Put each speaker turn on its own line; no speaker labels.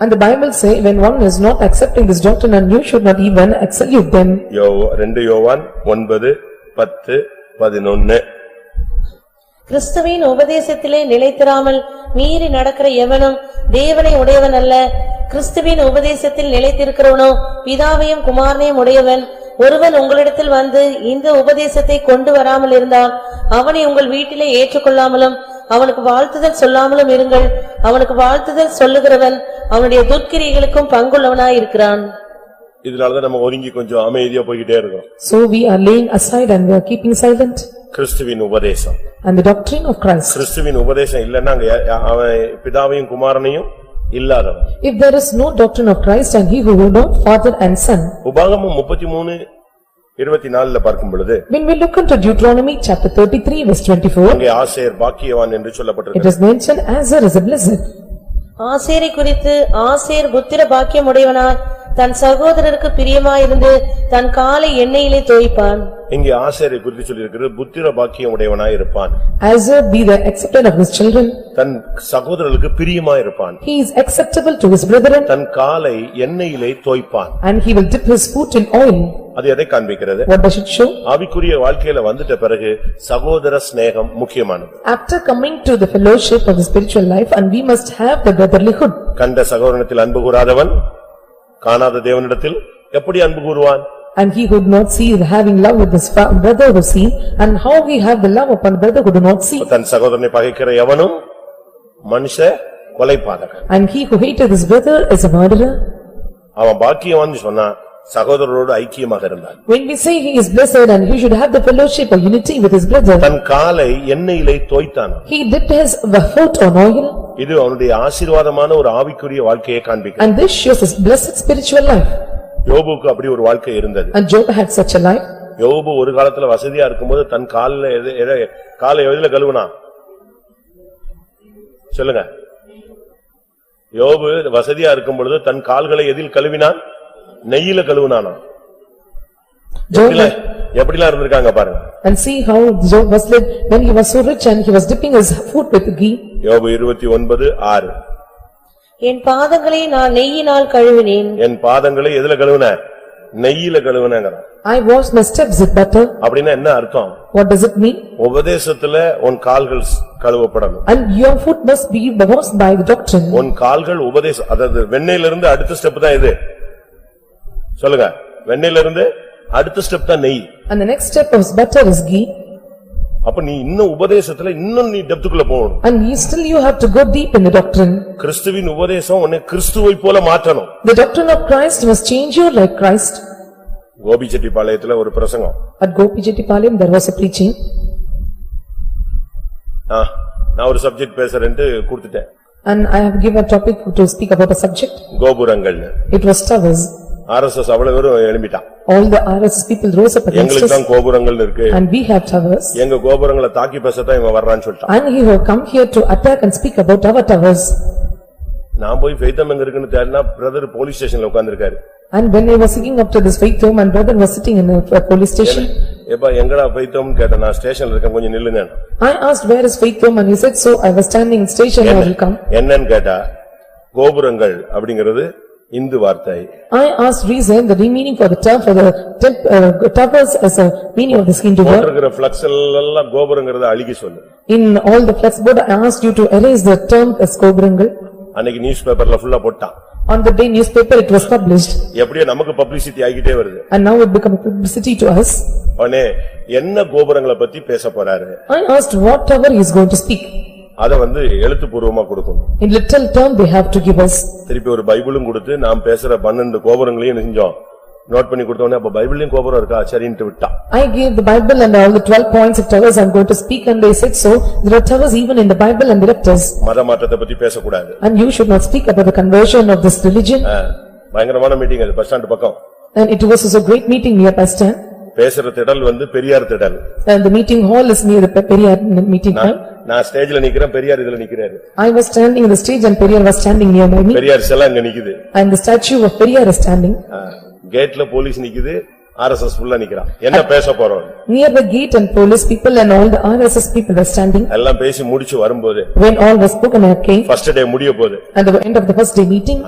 And the Bible say, when one is not accepting this doctrine and you should not even salute them.
யோ ரெண்டு யோவான் ஒன்பது பத்து பதினொன்னு
கிறிஸ்துவின் உபதேசத்திலே நிலைத்திராமல் மீறி நடக்கிற எவனும் தேவனை உடையவன் அல்ல கிறிஸ்துவின் உபதேசத்தில் நிலைத்திருக்கிறவனோ பிதாவையும் குமாரனையும் உடையவன் ஒருவன் உங்களிடத்தில் வந்து இந்த உபதேசத்தை கொண்டு வராமல் இருந்தால் அவனை உங்கள் வீட்டிலே ஏற்றுக்கொள்ளாமலும் அவனுக்கு வாழ்த்துதல் சொல்லாமலும் இருங்கள் அவனுக்கு வாழ்த்துதல் சொல்லுகிறவன் அவனுடைய துர்க்கிரியைகளுக்கும் பங்குள்ளவனாயிருக்கிறான்
இதனாலதான் நம்ம ஒதுங்கி கொஞ்சம் அமைதியா போய்கிட்டே இருக்கோம்
So we are laying aside and we are keeping silent.
கிறிஸ்துவின் உபதேசம்
And the doctrine of Christ.
கிறிஸ்துவின் உபதேசம் இல்லன்னா அங்க யா- யா- அவன் பிதாவையும் குமாரனையும் இல்லாதவன்
If there is no doctrine of Christ and he who will know father and son.
உபாகமம் முப்பத்தி மூணு இருபத்தி நாலுல பார்க்கும் பொழுது
When we look into Deuteronomy chapter thirty-three verse twenty-four,
அங்கே ஆசேர் பாக்கியவான் என்று
it
சொல்லப்பட்டிருக்கு
is mentioned Azar is a blessed.
ஆசேரை குறித்து ஆசேர் புத்திர பாக்கியமுடையவனாய் தன் சகோதரருக்கு பிரியமாயிருந்து தன் காலை எண்ணெயிலே தோய்ப்பான்
இங்கே ஆசேரை குறித்து சொல்லியிருக்கிறது புத்திர பாக்கியம் உடையவனாய் இருப்பான்
Azar be the accepted of his children,
தன் சகோதரர்களுக்கு பிரியமாய் இருப்பான்
he is acceptable to his brethren
தன் காலை எண்ணெயிலே தோய்ப்பான்
and he will dip his foot in oil.
அது எதை காண்பிக்கிறது
What does it show?
ஆவிக்குரிய வாழ்க்கையில வந்துட்ட பிறகு சகோதர சிநேகம் முக்கியமானது
After coming to the fellowship of the spiritual life and we must have the brotherlyhood.
கண்ட சகோதரனத்தில் அன்பு கூறாதவன் காணாத தேவனிடத்தில் எப்படி அன்பு கூறுவான்
And he could not see the having love with his fa- brother who see and how he have the love upon brother who do not see.
தன் சகோதரனை பகைக்கிற எவனும் மனுஷ கொலைபாதகன்
And he who hated his brother is a murderer.
அவன் பாக்கியவான்னு சொன்னா சகோதரரோடு ஐக்கியமாக இருந்தான்
When we say he is blessed and he should have the fellowship or unity with his brother,
தன் காலை எண்ணெயிலே தோய்த்தான்
he dipped his foot on oil
இது அவனுடைய ஆசீர்வாதமான ஒரு ஆவிக்குரிய வாழ்க்கையை காண்பிக்கும்
and this shows his blessed spiritual life.
யோபுக்கு அப்படி ஒரு வாழ்க்கை இருந்தது
And Job had such a life.
யோபு ஒரு காலத்துல வசதியா இருக்கும்போது தன் காலில் எது எதை காலை எதுல கழுவுனா சொல்லுங்க யோபு வசதியா இருக்கும் பொழுது தன் கால்களை எதில் கழுவினான் நெய்யில கழுவினானா
Job
எப்படிலாம் எப்படிலாம் இருந்திருக்காங்க பாருங்க
and see how Job was led when he was so rich and he was dipping his foot with ghee.
யோபு இருபத்தி ஒன்பது ஆறு
என் பாதங்களை நான் நெய்யினால் கழுவினேன்
என் பாதங்களை எதுல கழுவுன நெய்யில கழுவுனேங்கிறான்
I washed my steps with butter.
அப்படின்னா என்ன அர்த்தம்
What does it mean?
உபதேசத்துல உன் கால்கள் ஸ்- கழுவப்படணும்
And your foot must be washed by the doctrine.
உன் கால்கள் உபதேச அதாவது வெண்ணெயிலிருந்து அடுத்த ஸ்டெப் தான் இது சொல்லுங்க வெண்ணெயிலிருந்து அடுத்த ஸ்டெப் தான் நெய்
And the next step of butter is ghee
அப்ப நீ இன்னும் உபதேசத்துல இன்னும் நீ டெப்துக்குள்ள போகணும்
and you still you have to go deep in the doctrine.
கிறிஸ்துவின் உபதேசம் உன்னை கிறிஸ்துவை போல மாற்றணும்
The doctrine of Christ must change you like Christ.
கோபிச்செட்டிப்பாளையத்துல ஒரு பிரசங்கம்
At Gopi Jettipalayam there was a preaching
ஆ, நான் ஒரு சப்ஜெக்ட் பேசுறேன்ட்டு கொடுத்துட்டேன்
and I have given a topic to speak about a subject.
கோபுரங்கள்னு
It was towers.
ஆர்எஸ்எஸ் அவ்வளவு பேரும் எழுப்பிட்டான்
All the RSS people rose up against
எங்களுக்கு
us
தான் கோபுரங்கள் இருக்கு
and we have towers.
எங்க கோபுரங்களை தாக்கி பேசத்தான் இவன் வர்றான்னு சொல்லிட்டான்
And he will come here to attack and speak about our towers.
நான் போய் ஃபெய்தம் எங்க இருக்குன்னு தேடினா பிரதர் போலீஸ் ஸ்டேஷன்ல உட்கார்ந்திருக்காரு
And when I was sitting up to this faith home and brother was sitting in a a police station,
எப்ப எங்கடா ஃபெய்தம்னு கேட்டேன் நான் ஸ்டேஷன்ல இருக்கேன் கொஞ்சம் நில்லுங்க
I asked where is faith home and he said so I was standing in station I will come.
என்னன்னு கேட்டா கோபுரங்கள் அப்படிங்கிறது இந்து வார்த்தை
I asked reason, the meaning for the term for the temp- uh, towers as a meaning of this Hindu word.
போட்டிருக்கிற flex எல்லாம் கோபுரங்கிறத அழுகி சொல்லு
In all the flex board, I asked you to erase the term as Kobrangal.
அன்னைக்கு news பேப்பர்ல ஃபுல்லா போட்டான்
On the day newspaper, it was published
எப்படியோ நமக்கு பப்ளிசிட்டி ஆகிட்டே வருது
and now it become publicity to us.
உடனே என்ன கோபுரங்களை பத்தி பேச போறாரு
I asked what tower he is going to speak.
அத வந்து எழுத்துப்பூர்வமா கொடுக்கணும்
In little term, they have to give us.
திருப்பி ஒரு பைபிளும் கொடுத்து நாம் பேசுற பன்னெண்டு கோபுரங்களையும் என்ன செஞ்சோம் நோட் பண்ணி கொடுத்தோன்னே அப்ப பைபிளையும் கோபுரம் இருக்கா சரின்ட்டு விட்டான்
I gave the Bible and all the twelve points of towers I am going to speak and they said so. There are towers even in the Bible and they left us.
மத மாற்றத்தை பத்தி பேசக்கூடாது
And you should not speak about the conversion of this religion.
ஆ, பயங்கரமான meeting அது bus stand பக்கம்
And it was also a great meeting near Pastor.
பேசுற திடல் வந்து பெரியார் திடல்
And the meeting hall is near the Pe- Periyar meeting
நான்-
hall.
நான் ஸ்டேஜ்ல நிக்கிறேன் பெரியார் இதுல நிக்கிறாரு
I was standing in the stage and Periyar was standing near by me.
Periyar செல்லாம் இங்க நிக்குது
And the statue of Periyar is standing.
ஆ, கேட்ல போலீஸ் நிக்குது ஆர்எஸ்எஸ் ஃபுல்லா நிக்கிறான் என்ன பேச போறோம்
Near the gate and police people and all the RSS people were standing.
எல்லாம் பேசி முடிச்சு வரும்போது
When all was spoken, I came.
First day முடிய போகுது
And the end of the first day meeting,